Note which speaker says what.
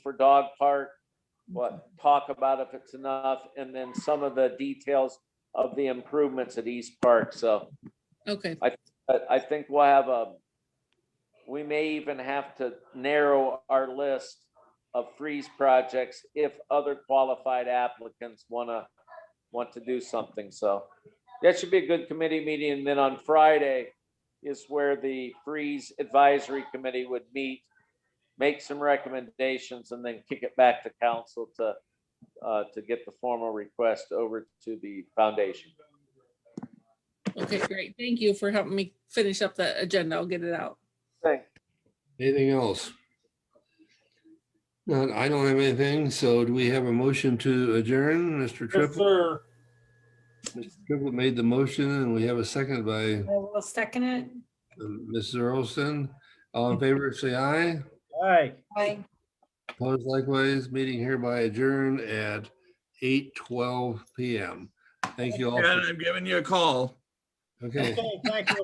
Speaker 1: for dog park, what, talk about if it's enough, and then some of the details of the improvements at East Park, so
Speaker 2: Okay,
Speaker 1: I, I think we'll have a, we may even have to narrow our list of freeze projects if other qualified applicants wanna, want to do something, so. That should be a good committee meeting, and then on Friday is where the freeze advisory committee would meet, make some recommendations, and then kick it back to council to, uh, to get the formal request over to the foundation.
Speaker 2: okay, great. Thank you for helping me finish up the agenda. I'll get it out.
Speaker 1: Thanks.
Speaker 3: Anything else? None, I don't have anything, so do we have a motion to adjourn? Mr.
Speaker 4: Yes,
Speaker 3: Triplett,
Speaker 4: sir.
Speaker 3: Mr. Triplett made the motion and we have a second by
Speaker 5: I will second it.
Speaker 3: um, Mrs. Earlston. All in favor, say aye.
Speaker 4: Aye.
Speaker 5: Bye.
Speaker 3: Opposed likewise, meeting hereby adjourned at eight twelve PM. Thank you all.
Speaker 6: Yeah,
Speaker 3: for-
Speaker 6: I'm giving you a call.
Speaker 3: Okay.
Speaker 4: Okay, thank you.